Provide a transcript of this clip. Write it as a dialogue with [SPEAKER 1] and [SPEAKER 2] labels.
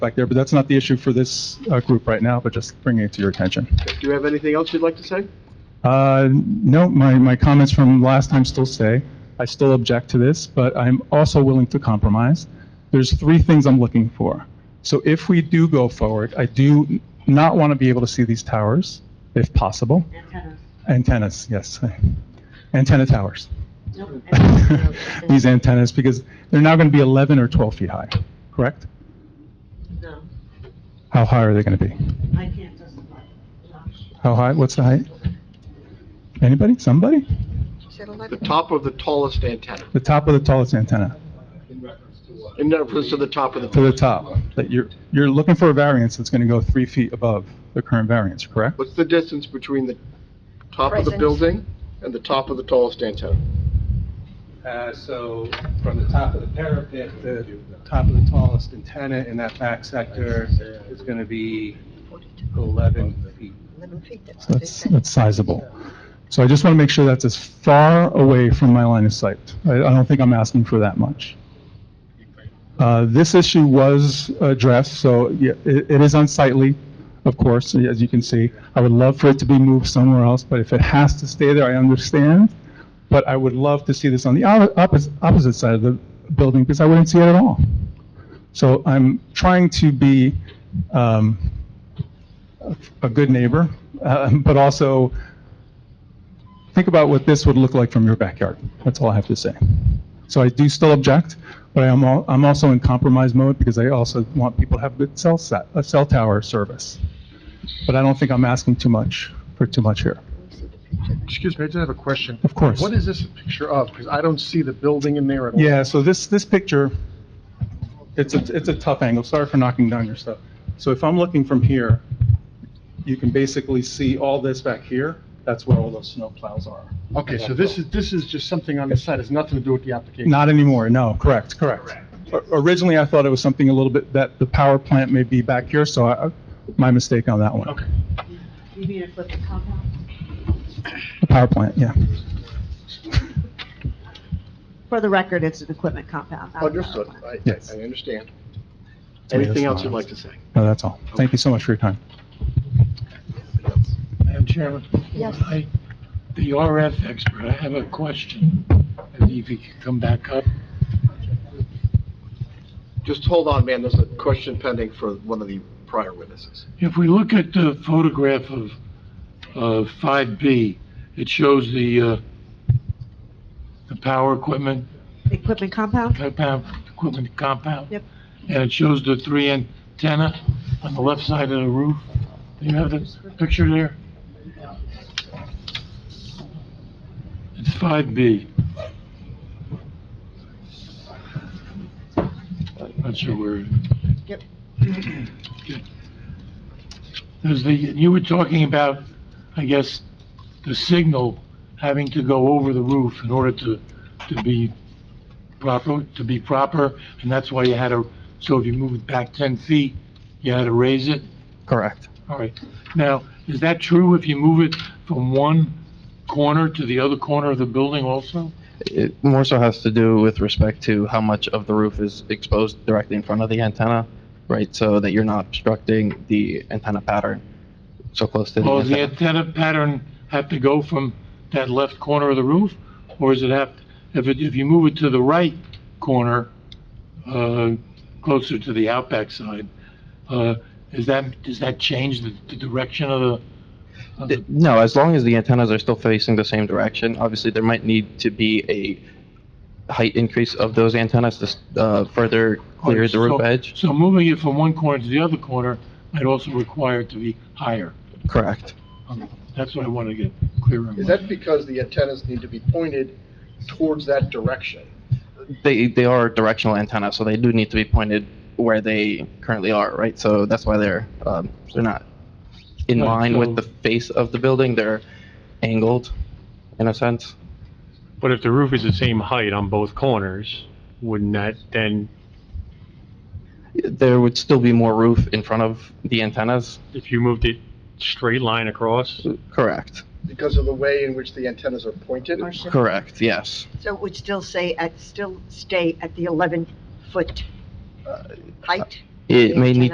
[SPEAKER 1] back there, but that's not the issue for this uh, group right now, but just bringing it to your attention.
[SPEAKER 2] Do you have anything else you'd like to say?
[SPEAKER 1] Uh, No, my, my comments from last time still stay. I still object to this, but I'm also willing to compromise. There's three things I'm looking for. So if we do go forward, I do not want to be able to see these towers, if possible.
[SPEAKER 3] Antennas.
[SPEAKER 1] Antennas, yes. Antenna towers.
[SPEAKER 3] Nope, antennas.
[SPEAKER 1] These antennas, because they're now going to be 11 or 12 feet high, correct?
[SPEAKER 3] No,
[SPEAKER 1] How high are they going to be?
[SPEAKER 3] I can't justify it.
[SPEAKER 1] How high, what's the height? Anybody, somebody?
[SPEAKER 2] The top of the tallest antenna,
[SPEAKER 1] The top of the tallest antenna,
[SPEAKER 2] in reference to the top of the.
[SPEAKER 1] to the top, that you're, you're looking for a variance that's going to go three feet above the current variance, correct?
[SPEAKER 2] What's the distance between the top of the
[SPEAKER 4] Present.
[SPEAKER 2] building and the top of the tallest antenna?
[SPEAKER 5] Uh, So from the top of the parapet to the top of the tallest antenna in that back sector is going to be 11 feet.
[SPEAKER 1] So that's, that's sizable. So I just want to make sure that's as far away from my line of sight. I, I don't think I'm asking for that much. Uh, this issue was addressed, so yeah, it, it is unsightly, of course, as you can see. I would love for it to be moved somewhere else, but if it has to stay there, I understand. But I would love to see this on the oppo- opposite, opposite side of the building because I wouldn't see it at all. So I'm trying to be, um, a good neighbor, uh, but also think about what this would look like from your backyard. That's all I have to say. So I do still object, but I am al- I'm also in compromise mode because I also want people to have good cell set, a cell tower service. But I don't think I'm asking too much for too much here.
[SPEAKER 6] Excuse me, I just have a question.
[SPEAKER 1] Of course.
[SPEAKER 6] What is this a picture of? Because I don't see the building in there at all.
[SPEAKER 1] Yeah, so this, this picture, it's a, it's a tough angle. Sorry for knocking down your stuff. So if I'm looking from here, you can basically see all this back here. That's where all those snow plows are.
[SPEAKER 6] Okay, so this is, this is just something on the side, it's nothing to do with the application.
[SPEAKER 1] Not anymore, no, correct, correct. O- Originally, I thought it was something a little bit, that the power plant may be back here, so I, my mistake on that one.
[SPEAKER 6] Okay.
[SPEAKER 3] You mean if it's a compound?
[SPEAKER 1] The power plant, yeah.
[SPEAKER 3] For the record, it's an equipment compound. not a power
[SPEAKER 2] Understood,
[SPEAKER 3] plant.
[SPEAKER 2] I,
[SPEAKER 1] Yes.
[SPEAKER 2] I understand.
[SPEAKER 1] To me,
[SPEAKER 2] Anything
[SPEAKER 1] that's
[SPEAKER 2] else
[SPEAKER 1] not-
[SPEAKER 2] you'd like to say?
[SPEAKER 1] No, that's all. Thank you so much for your time.
[SPEAKER 7] Madam Chairman?
[SPEAKER 4] Yes.
[SPEAKER 7] I- The RF expert, I have a question, and if he could come back up.
[SPEAKER 2] Just hold on, man, there's a question pending for one of the prior witnesses.
[SPEAKER 7] If we look at the photograph of, of 5B, it shows the, uh, the power equipment,
[SPEAKER 3] Equipment compound?
[SPEAKER 7] compound, equipment compound.
[SPEAKER 3] Yep.
[SPEAKER 7] And it shows the three antenna on the left side of the roof. Do you have the picture there? It's 5B. Not sure where. it is.
[SPEAKER 3] Yep.
[SPEAKER 7] Okay. There's the, you were talking about, I guess, the signal having to go over the roof in order to, to be proper, to be proper, and that's why you had to, so if you move it back 10 feet, you had to raise it?
[SPEAKER 1] Correct.
[SPEAKER 7] All right. Now, is that true if you move it from one corner to the other corner of the building also?
[SPEAKER 8] It more so has to do with respect to how much of the roof is exposed directly in front of the antenna, right? So that you're not obstructing the antenna pattern so close to the
[SPEAKER 7] Or does Oh, the
[SPEAKER 8] antenna.
[SPEAKER 7] antenna pattern have to go from that left corner of the roof? Or is it have, if it, if you move it to the right corner, uh, closer to the outback side, uh, is that, does that change the, the direction of the? of the-
[SPEAKER 8] D- No, as long as the antennas are still facing the same direction, obviously there might need to be a height increase of those antennas to s- uh, further clear the roof
[SPEAKER 7] So-
[SPEAKER 8] edge.
[SPEAKER 7] So moving it from one corner to the other corner might also require it to be higher.
[SPEAKER 8] Correct.
[SPEAKER 7] Um, That's what I want to get clear on.
[SPEAKER 2] Is that because the antennas need to be pointed towards that direction?
[SPEAKER 8] They, they are directional antennas, so they do need to be pointed where they currently are, right? So that's why they're, um, they're not in
[SPEAKER 7] Right,
[SPEAKER 8] line
[SPEAKER 7] so-
[SPEAKER 8] with the face of the building, they're angled, in a sense.
[SPEAKER 9] But if the roof is the same height on both corners, wouldn't that then,
[SPEAKER 8] There would still be more roof in front of the antennas?
[SPEAKER 9] if you moved it straight line across?
[SPEAKER 8] Correct,
[SPEAKER 2] Because of the way in which the antennas are pointed?
[SPEAKER 4] Or should-
[SPEAKER 8] correct, yes.
[SPEAKER 4] So it would still say, at, still stay at the 11-foot height?
[SPEAKER 8] It may need